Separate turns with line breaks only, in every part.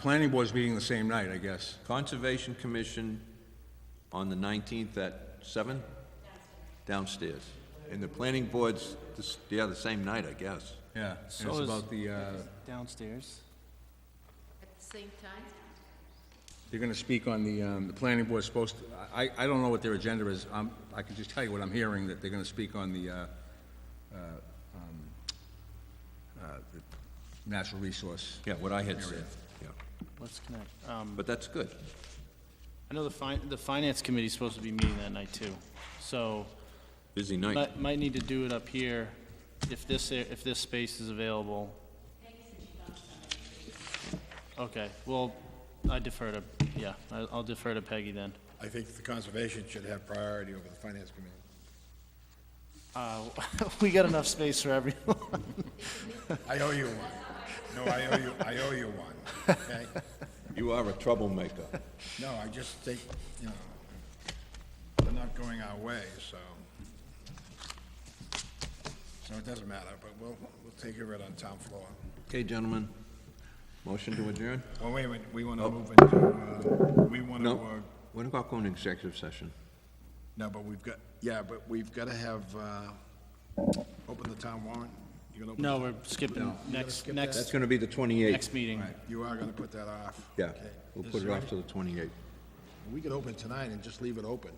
Planning board's meeting the same night, I guess.
Conservation Commission on the 19th at 7? Downstairs. And the planning board's, this- yeah, the same night, I guess.
Yeah, and it's
So is-
about the, uh,
downstairs.
At the same time?
they're gonna speak on the, um, the planning board's supposed, to- I, I don't know what their agenda is. Um, I can just tell you what I'm hearing, that they're gonna speak on the, uh, uh, um, uh, the natural resource.
Yeah, what I had said, yeah.
Let's connect. Um,
But that's good.
I know the fin, the finance committee's supposed to be meeting that night too. So
Busy night.
might, might need to do it up here if this, a- if this space is available. Okay, well, I defer to, yeah, I- I'll defer to Peggy then.
I think the conservation should have priority over the finance committee.
Uh, we got enough space for everyone.
I owe you one. No, I owe you, I owe you one, okay?
You are a troublemaker.
No, I just think, you know, they're not going our way, so. So it doesn't matter, but we'll, we'll take care of it on town floor.
Okay, gentlemen, motion to adjourn?
Well, Oh, wait a minute, we want to move into, uh, we want to,
Oh. No,
uh,
what about going to executive session?
no, but we've got, yeah, but we've got to have, uh, open the town warrant. You're gonna open-
No, we're skipping next,
That's
next,
gonna be the 28th.
next meeting.
You are going to put that off.
Yeah,
Okay.
we'll put it off to the 28th.
We could open tonight and just leave it open.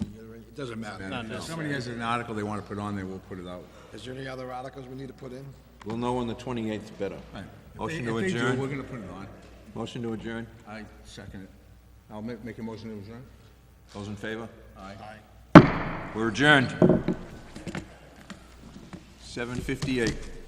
So you gotta- It doesn't matter.
Not
If
necessary.
somebody has an article they wanna put on there, we'll put it out.
Is there any other articles we need to put in?
We'll know on the 28th better.
Right. If they-
Motion to
If they do, we're
adjourn?
gonna put it on.
Motion to adjourn?
I second it. I'll ma- make a motion to adjourn.
Those in favor?
Aye.
We're adjourned. 7:58.